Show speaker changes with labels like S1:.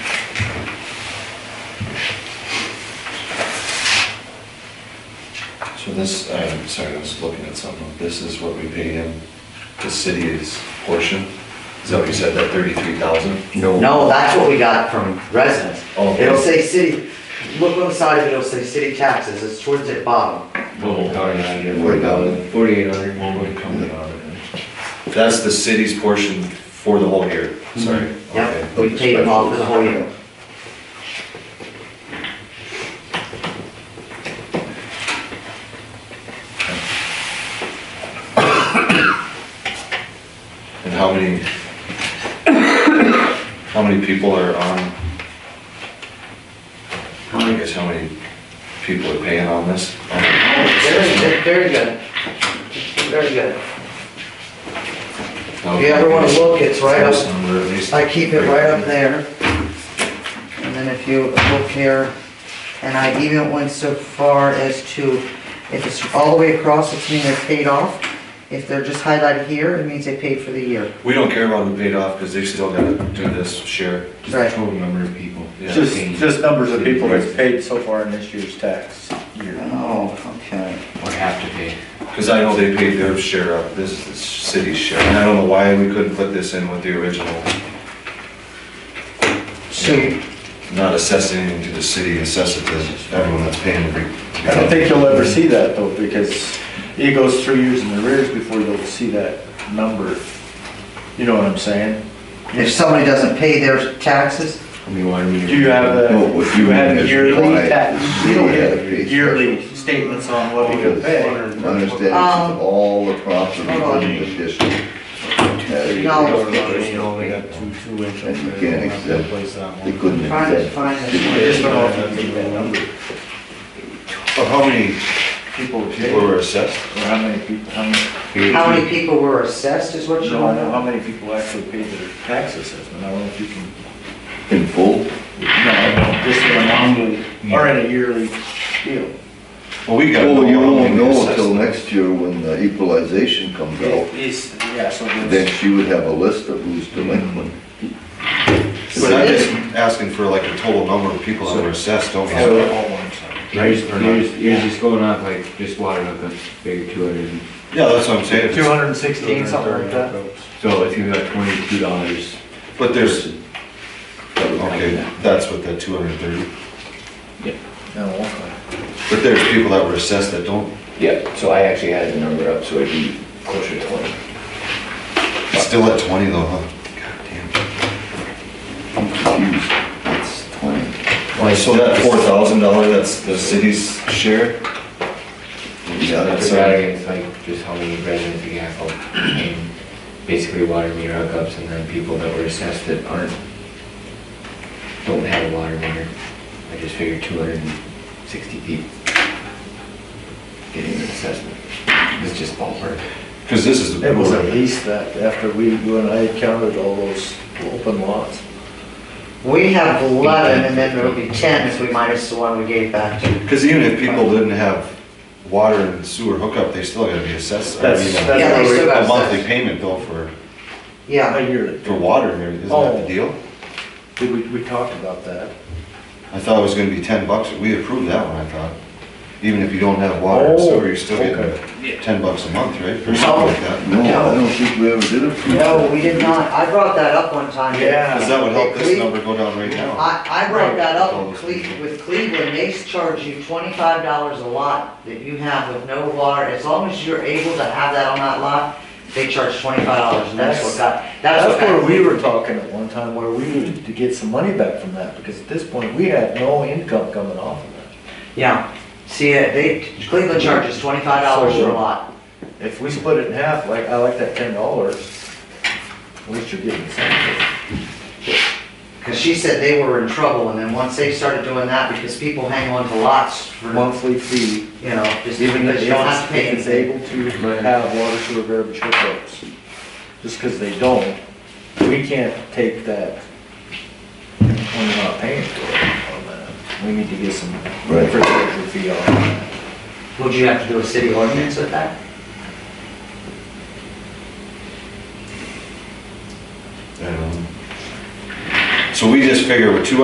S1: this, I'm sorry, I was looking at something. This is what we pay him, the city's portion? Is that what you said, that thirty-three thousand?
S2: No, that's what we got from residents.
S1: Oh.
S2: It'll say city, look on the side of it, it'll say city taxes, it's towards the bottom.
S3: Forty-eight hundred.
S1: That's the city's portion for the whole year, sorry.
S2: Mm-hmm. Yep, we paid them all for the whole year.
S1: And how many, how many people are on? I guess how many people are paying on this?
S2: Very, good, very good. Very good.
S1: Now,
S2: If you ever wanna look, it's right up-
S1: This number at least.
S2: I keep it right up there. And then if you look here, and I even went so far as to, if it's all the way across, it's mean they're paid off. If they're just highlighted here, it means they paid for the year.
S1: We don't care about the paid off, because they still gotta do this share.
S3: Just the
S2: Right.
S3: total number of people.
S1: Yeah.
S4: Just, just numbers of people that's
S1: Right.
S4: paid so far in this year's tax year.
S2: Oh, okay.
S3: Or have to pay.
S1: Because I know they paid their share up, this is the city's share, and I don't know why we couldn't put this in with the original.
S2: So you-
S1: Not assessing anything to the city, assess it to everyone that's paying. every-
S4: I don't think you'll ever see that though, because it goes three years in arrears before you'll see that number. You know what I'm saying?
S2: if somebody doesn't pay their taxes,
S3: I mean, why do we?
S4: Do you have
S5: No,
S4: a,
S5: what
S4: you
S5: you mean
S4: have
S5: is
S4: yearly
S5: why
S4: tax, you
S5: we
S4: don't
S5: have
S4: get
S5: these.
S4: yearly statements on what people pay.
S5: Understand,
S2: Um,
S5: it's all across the
S2: hold on.
S5: religious district.
S2: No.
S3: You know, we got two, two inch.
S5: And you can't accept- They couldn't
S2: trying to
S5: accept.
S2: find
S4: I
S2: it.
S4: just don't know if you get that number,
S1: But how many
S4: people pay,
S1: people
S4: or
S1: were assessed?
S4: how many people, how many,
S2: How many people were assessed is what you
S4: no, I
S2: want
S4: know
S2: to
S4: how
S2: know?
S4: many people actually paid their tax assessment, I don't know if you can.
S5: In full?
S4: No, this is an annual, or in a yearly deal.
S1: Well, we got.
S5: Well, you won't know until
S1: till
S5: next year when the equalization comes out.
S4: It's, yeah, so
S5: Then
S4: it's,
S5: she would have a list of who's delinquent.
S1: But I'm just asking for like a total number of people that were assessed, don't we?
S4: all
S1: have-
S4: all one time.
S3: Yours,
S1: Or not.
S3: yours, yours is going up like just water hookup, big two hundred.
S1: Yeah, that's what I'm saying.
S4: Two hundred and sixteen, something like that.
S3: So it's gonna be like twenty-two dollars.
S1: But there's, okay, that's what that two hundred and thirty,
S4: No, okay.
S1: but there's people that were assessed that don't,
S6: Yep, so I actually had the number up, so it'd be closer to 20.
S1: it's still at twenty though, huh? God damn.
S5: I'm confused. It's twenty.
S1: So that four thousand dollar, that's the city's share?
S5: Yeah,
S3: That's
S5: that's
S1: So-
S3: right, it's like just how many residents we have, and basically water meter hookups, and then people that were assessed that aren't, don't have a water meter. I just figured two hundred and sixty people getting an assessment. It's just ballpark.
S1: Cause this is the.
S4: It was at least that, after we, you and I counted all those open lots.
S2: We have eleven, and then there'll be ten if we minus the one we gave back to.
S1: Cause even if people didn't have water and sewer hookup, they still gotta be assessed. I
S4: That's-
S1: mean,
S4: that's
S2: Yeah, they still got
S1: A monthly
S2: assessed.
S1: payment bill for,
S2: Yeah,
S4: A yearly.
S1: for water, there- isn't that the
S4: Oh.
S1: deal?
S4: Did we, we talked about that?
S1: I thought it was gonna be ten bucks, we approved that one, I thought. Even if you don't have water and
S4: Oh,
S1: sewer, you're still
S4: okay.
S1: getting ten bucks a month, right? Or something like that.
S5: No, I don't think we ever did approve
S2: no,
S5: that.
S2: we did not. I brought that up one time.
S1: Cause that would help this
S2: We-
S1: number go down right now.
S2: I, I brought that up
S1: Right.
S2: with Cle- with Cleveland, they charge you twenty-five dollars a lot that you have with no water, as long as you're able to have that on that lot, they charge twenty-five dollars, and that's what got, that's what
S4: That's
S2: got.
S4: where we were talking at one time, where we needed to get some money back from that, because at this point, we had no income coming off of that.
S2: Yeah, see, uh, they, Cleveland charges twenty-five dollars for a lot,
S4: If we split it in half, like, I like that ten dollars, at least you're getting something.
S2: cause she said they were in trouble, and then once they started doing that, because people hang on to lots for,
S4: monthly fee,
S2: you know, just
S4: even if
S2: because you don't have to pay
S4: it's
S2: anything.
S4: able to have water sewer garbage hookups. Just because they don't, we can't take that when we're not paying for it on that. We need to get some
S5: Right.
S4: infrastructure fee on that.
S2: Would you have to do a city ordinance with that?
S1: I don't know. So we just figure with two